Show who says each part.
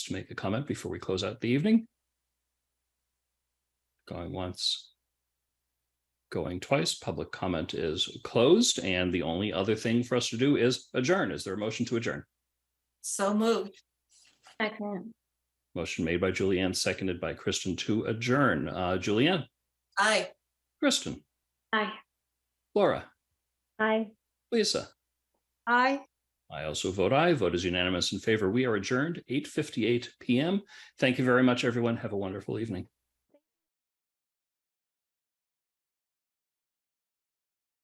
Speaker 1: to make a comment before we close out the evening? Going once. Going twice, public comment is closed, and the only other thing for us to do is adjourn. Is there a motion to adjourn?
Speaker 2: So moved.
Speaker 3: Second.
Speaker 1: Motion made by Julianne, seconded by Kristen to adjourn. Uh, Julianne,
Speaker 2: Aye.
Speaker 1: Kristen,
Speaker 3: Aye.
Speaker 1: Laura,
Speaker 3: Aye.
Speaker 1: Lisa.
Speaker 2: Aye.
Speaker 1: I also vote aye. Vote is unanimous in favor. We are adjourned eight fifty-eight PM. Thank you very much, everyone. Have a wonderful evening.